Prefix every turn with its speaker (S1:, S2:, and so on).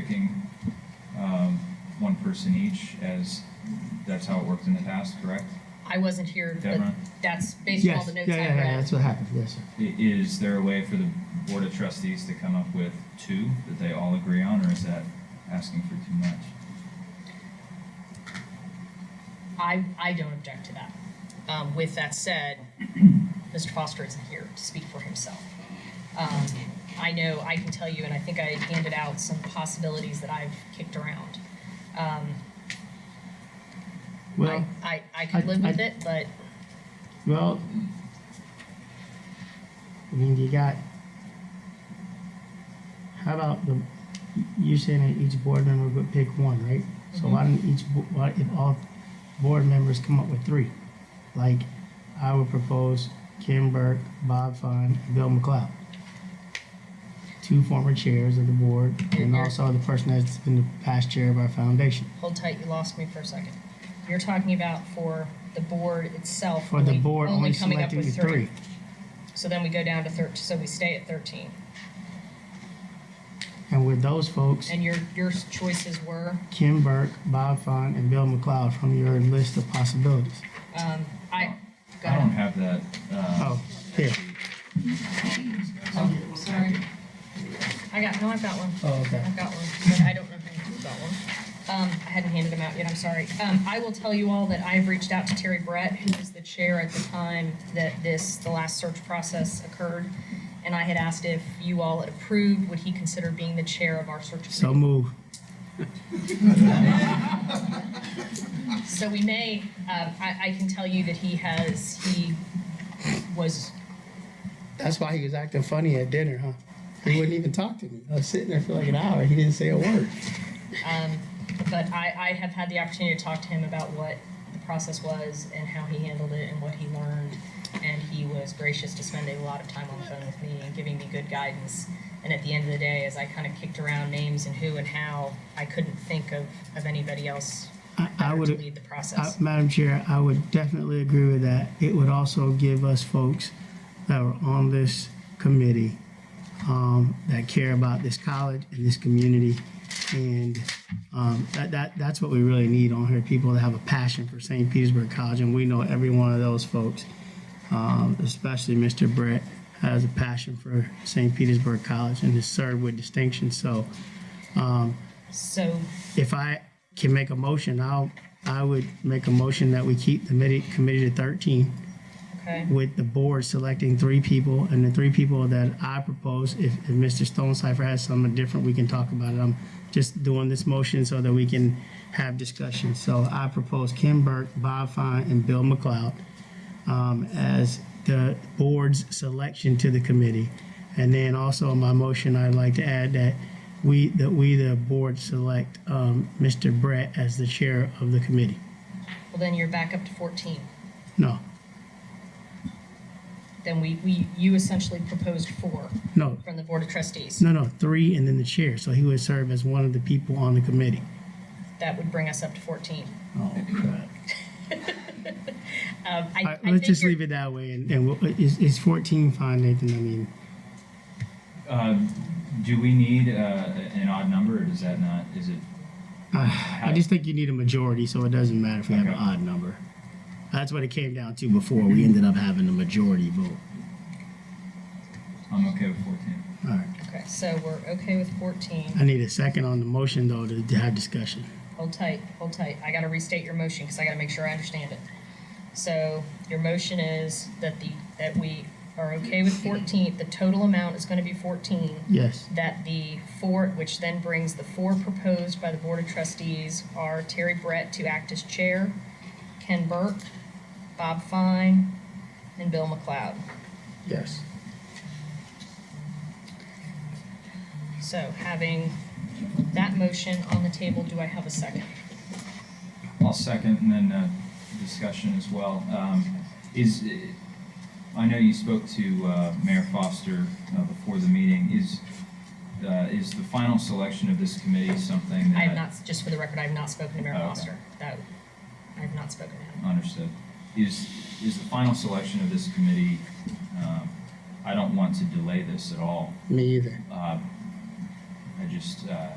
S1: picking um, one person each as, that's how it worked in the past, correct?
S2: I wasn't here, but
S1: Deborah?
S2: that's based on all
S3: Yes,
S2: the
S3: yeah,
S2: notes
S3: yeah,
S2: I
S3: yeah,
S2: read.
S3: that's what happened, yes, sir.
S1: I- Is there a way for the Board of Trustees to come up with two that they all agree on, or is that asking for too much?
S2: I, I don't object to that. Um, with that said, Mr. Foster isn't here to speak for himself. Um, I know, I can tell you, and I think I handed out some possibilities that I've kicked around. Um,
S3: Well,
S2: I, I, I could
S3: I-
S2: live with
S3: I-
S2: it, but
S3: well, I mean, you got, how about the, you're saying that each board member would pick one, right? So
S2: Mm-hmm.
S3: why don't each, bo- why, if all board members come up with three? Like, I would propose Kim Burke, Bob Fine, and Bill McLeod. Two former chairs of the board, and
S2: You're-
S3: also the person that's been the past chair of our foundation.
S2: hold tight, you lost me for a second. You're talking about for the board itself.
S3: For the
S2: only-
S3: board, only
S2: coming up
S3: selecting
S2: with
S3: the three.
S2: So then we go down to thirteen, so we stay at thirteen.
S3: And with those folks,
S2: And your, your choices were?
S3: Kim Burke, Bob Fine, and Bill McLeod from your list of possibilities.
S2: Um, I, go
S1: I don't
S2: ahead.
S1: have that. uh,
S3: Oh, here.
S2: Oh, sorry. I got, no, I've got one.
S3: Oh, okay.
S2: I've got one, but I don't know if I've got one. Um, I hadn't handed them out yet, I'm sorry. Um, I will tell you all that I've reached out to Terry Brett, who was the chair at the time that this, the last search process occurred. And I had asked if you all had approved, would he consider being the chair of our search
S3: So
S2: committee?
S3: move.
S2: So we may, um, I, I can tell you that he has, he was
S3: That's why he was acting funny at dinner, huh? He wouldn't even talk to me. I was sitting there for like an hour. He didn't say a word.
S2: But I, I have had the opportunity to talk to him about what the process was and how he handled it and what he learned. And he was gracious to spend a lot of time on the phone with me and giving me good guidance. And at the end of the day, as I kind of kicked around names and who and how, I couldn't think of, of anybody else
S3: I, I
S2: better to
S3: would,
S2: lead the
S3: I,
S2: process.
S3: Madam Chair, I would definitely agree with that. It would also give us folks that are on this committee um, that care about this college and this community. And um, that, that, that's what we really need on here, people that have a passion for St. Petersburg College. And we know every one of those folks, um, especially Mr. Brett, has a passion for St. Petersburg College and has served with distinction. So
S2: So
S3: if I can make a motion, I'll, I would make a motion that we keep the committee, committee to thirteen
S2: okay,
S3: with the board selecting three people and the three people that I propose, if, if Mr. Stone Cipher has something different, we can talk about it. I'm just doing this motion so that we can have discussion. So I propose Kim Burke, Bob Fine, and Bill McLeod um, as the board's selection to the committee. And then also in my motion, I'd like to add that we, that we, the board, select um, Mr. Brett as the chair of the committee.
S2: well then you're back up to fourteen.
S3: No,
S2: Then we, we, you essentially proposed four
S3: no,
S2: from the Board of Trustees.
S3: No, no, three and then the chair. So he would serve as one of the people on the committee.
S2: That would bring us up to fourteen.
S3: Oh, crap.
S2: Um, I, I
S3: let's
S2: think
S3: just
S2: you're-
S3: leave it that way. And, and we'll- is, is 14 fine, Nathan? I mean,
S1: Um, Do we need uh, an odd number, or does that not, is it,
S3: I just think you need a majority, so it doesn't matter if we have an
S1: Okay.
S3: odd number. That's what it came down to before. We ended up having a majority vote.
S1: I'm okay with 14.
S3: All right.
S2: Okay, so we're okay with fourteen.
S3: I need a second on the motion, though, to, to have discussion.
S2: Hold tight, hold tight. I gotta restate your motion because I gotta make sure I understand it. So your motion is that the, that we are okay with fourteen, the total amount is gonna be fourteen.
S3: Yes.
S2: That the four, which then brings the four proposed by the Board of Trustees are Terry Brett to act as chair, Ken Burke, Bob Fine, and Bill McLeod.
S3: Yes.
S2: So having that motion on the table, do I have a second?
S1: I'll second and then uh, discussion as well. Um, Is, uh, I know you spoke to uh, Mayor Foster uh, before the meeting. Is, uh, is the final selection of this committee something that?
S2: I have not, just for the record, I have not spoken to Mayor
S1: Okay.
S2: Foster. That, I have not spoken to him.
S1: Understood. Is, is the final selection of this committee, um, I don't want to delay this at all.
S3: Me either.
S1: Uh, I just, uh,